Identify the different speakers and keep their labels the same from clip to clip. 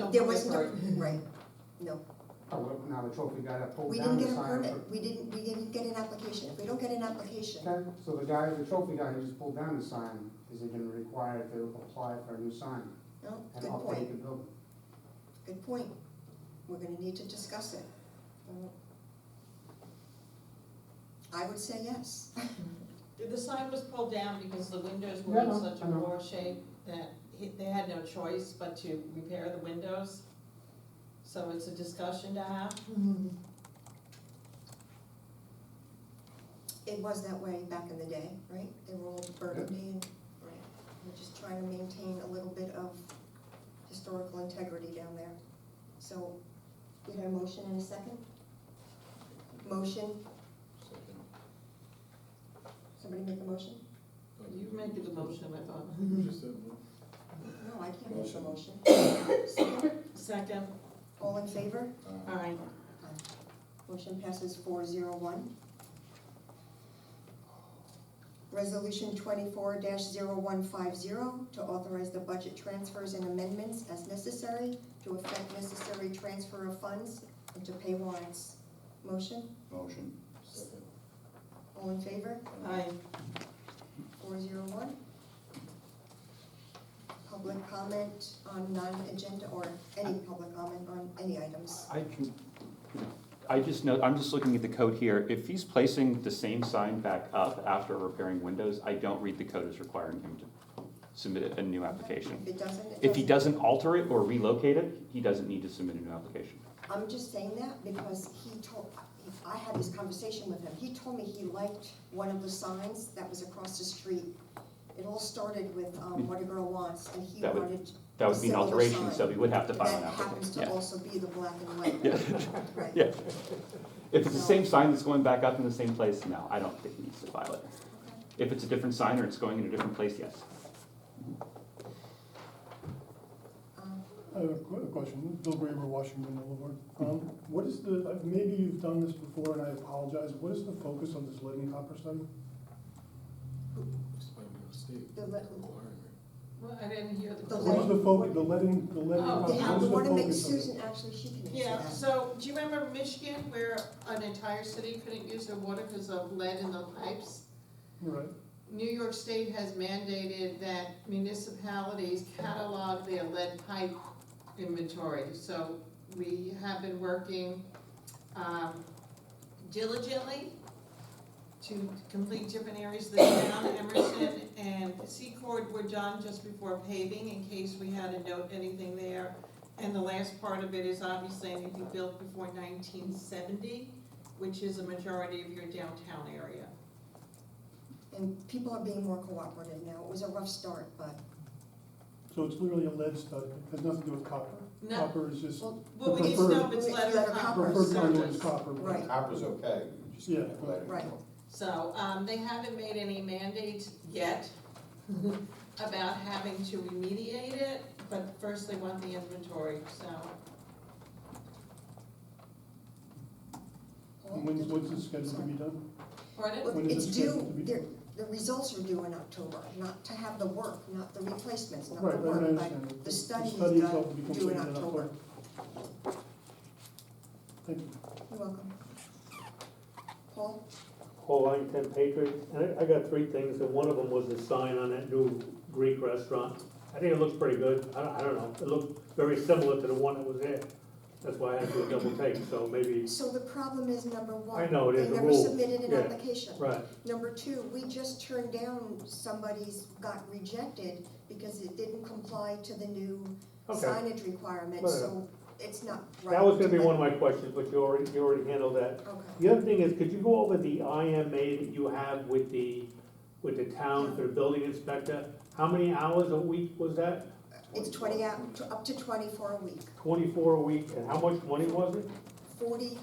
Speaker 1: on
Speaker 2: There
Speaker 1: the
Speaker 2: was no,
Speaker 1: part.
Speaker 2: right, no,
Speaker 3: However, Oh, now the trophy guy that pulled
Speaker 2: we didn't
Speaker 3: down the
Speaker 2: get a
Speaker 3: sign.
Speaker 2: permit, we didn't, we didn't get an application, if we don't get an application,
Speaker 3: Okay, so the guy, the trophy guy who just pulled down the sign, is he gonna require to apply for a new sign
Speaker 2: no,
Speaker 3: and
Speaker 2: good point,
Speaker 3: update the building?
Speaker 2: good point, we're gonna need to discuss it. I would say yes,
Speaker 1: The sign was pulled down because the windows were
Speaker 3: Yeah, I
Speaker 1: in
Speaker 3: know,
Speaker 1: such a
Speaker 3: I know.
Speaker 1: poor shape that he- they had no choice but to repair the windows. So it's a discussion to have.
Speaker 2: it was that way back in the day, right, they were all burgundy and, right, we're just trying to maintain a little bit of historical integrity down there. So, we had a motion and a second? Motion, somebody make a motion?
Speaker 1: You made the motion, I thought.
Speaker 2: No, I can't make a
Speaker 4: Motion.
Speaker 2: motion. Second?
Speaker 1: Second,
Speaker 2: All in favor?
Speaker 1: aye.
Speaker 2: Motion passes four zero one. Resolution twenty-four 150 to authorize the budget transfers and amendments as necessary to effect necessary transfer of funds and to pay warrants. Motion,
Speaker 4: Motion.
Speaker 2: all in favor?
Speaker 1: Aye.
Speaker 2: four zero one. Public comment on non-agenda or any public comment on any items.
Speaker 5: I can, I just know, I'm just looking at the code here. If he's placing the same sign back up after repairing windows, I don't read the code as requiring him to submit a new application.
Speaker 2: If it doesn't, it doesn't.
Speaker 5: If he doesn't alter it or relocate it, he doesn't need to submit a new application.
Speaker 2: I'm just saying that because he told, I had this conversation with him, he told me he liked one of the signs that was across the street. It all started with, um, what a girl wants, and he
Speaker 5: That would-
Speaker 2: wanted,
Speaker 5: That would be an
Speaker 2: Similar
Speaker 5: alteration,
Speaker 2: sign.
Speaker 5: so he would have to
Speaker 2: that
Speaker 5: file an
Speaker 2: happens
Speaker 5: application,
Speaker 2: to
Speaker 5: yeah.
Speaker 2: also be the black and white.
Speaker 5: Yeah,
Speaker 2: Right.
Speaker 5: yeah. If it's the same sign that's going back up in the same place, no, I don't think he needs to file it.
Speaker 2: Okay.
Speaker 5: If it's a different sign or it's going in a different place, yes.
Speaker 2: Um,
Speaker 6: I have a qu- a question, Bill Bramer, Washington Boulevard. Um, What is the, uh, maybe you've done this before and I apologize, what is the focus on this lead and copper study?
Speaker 2: The, le-
Speaker 1: Well, I didn't hear the
Speaker 2: The
Speaker 6: What is
Speaker 1: question.
Speaker 6: the focus, the lead and, the lead and
Speaker 1: Oh,
Speaker 6: copper,
Speaker 2: yeah, I
Speaker 6: what is the
Speaker 2: wanna make
Speaker 6: focus of it?
Speaker 2: Susan, actually, she can answer
Speaker 1: Yeah,
Speaker 2: that.
Speaker 1: so do you remember Michigan where an entire city couldn't use their water because of lead in the pipes?
Speaker 6: Right,
Speaker 1: New York State has mandated that municipalities catalog their lead pipe inventory. So we have been working um, diligently to complete different areas of the town. Emerson and Secord were done just before paving in case we had to note anything there. And the last part of it is obviously anything built before nineteen seventy, which is a majority of your downtown area.
Speaker 2: And people are being more cooperative now. It was a rough start, but,
Speaker 6: so it's literally a lead study, it has nothing to do with copper.
Speaker 1: No.
Speaker 6: Copper is just,
Speaker 2: well,
Speaker 1: Well, we need to know if it's lead or copper
Speaker 6: preferred conduit
Speaker 1: service.
Speaker 6: is copper. but-
Speaker 2: right,
Speaker 4: Copper's okay, you just
Speaker 6: Yeah.
Speaker 4: can't let it
Speaker 2: Right.
Speaker 4: go.
Speaker 1: So, um, they haven't made any mandates yet about having to remediate it, but first they want the inventory, so.
Speaker 6: And when's, what's the schedule to be done?
Speaker 1: Pardon?
Speaker 2: Well,
Speaker 6: When is
Speaker 2: it's
Speaker 6: it
Speaker 2: due,
Speaker 6: scheduled to be-
Speaker 2: they're- the results are due in October, not to have the work, not the replacements, not
Speaker 6: Right,
Speaker 2: the
Speaker 6: right, I
Speaker 2: work,
Speaker 6: understand.
Speaker 2: but the study is
Speaker 6: study itself will be
Speaker 2: done, due
Speaker 6: completed
Speaker 2: in October.
Speaker 6: Thank you.
Speaker 2: You're welcome. Paul,
Speaker 7: Paul Ironton Patriot, and I, I got three things, and one of them was the sign on that new Greek restaurant. I think it looks pretty good, I, don't- I don't know, it looked very similar to the one that was there. That's why I had to do a double take, so maybe,
Speaker 2: so the problem is, number one.
Speaker 7: I know, it is a
Speaker 2: They never
Speaker 7: rule.
Speaker 2: submitted an
Speaker 7: Yeah.
Speaker 2: application.
Speaker 7: right,
Speaker 2: Number two, we just turned down, somebody's got rejected because it didn't comply to the new
Speaker 7: okay.
Speaker 2: signage requirements,
Speaker 7: Fair
Speaker 2: so it's not right.
Speaker 7: That was gonna be
Speaker 2: to-
Speaker 7: one of my questions, but you already, you already handled that.
Speaker 2: Okay.
Speaker 7: The other thing is, could you go over the IMA that you have with the, with the town for the building inspector? How many hours a week was that?
Speaker 2: It's twenty out, to- up to twenty-four a week,
Speaker 7: Twenty-four a week, and how much money was it?
Speaker 2: forty,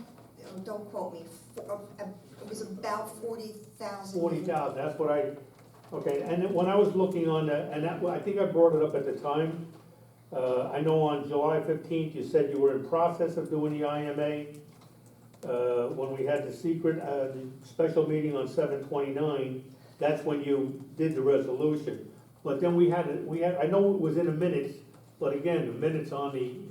Speaker 2: uh, don't quote me, fo- uh, uh, it was about forty thousand.
Speaker 7: Forty thousand, that's what I, okay, and then when I was looking on that, and that, I think I brought it up at the time. Uh, I know on July fifteenth, you said you were in process of doing the IMA. Uh, when we had the secret, uh, the special meeting on seven twenty-nine, that's when you did the resolution. But then we had, it- we had, I know it was in the minutes, but again, the minutes on the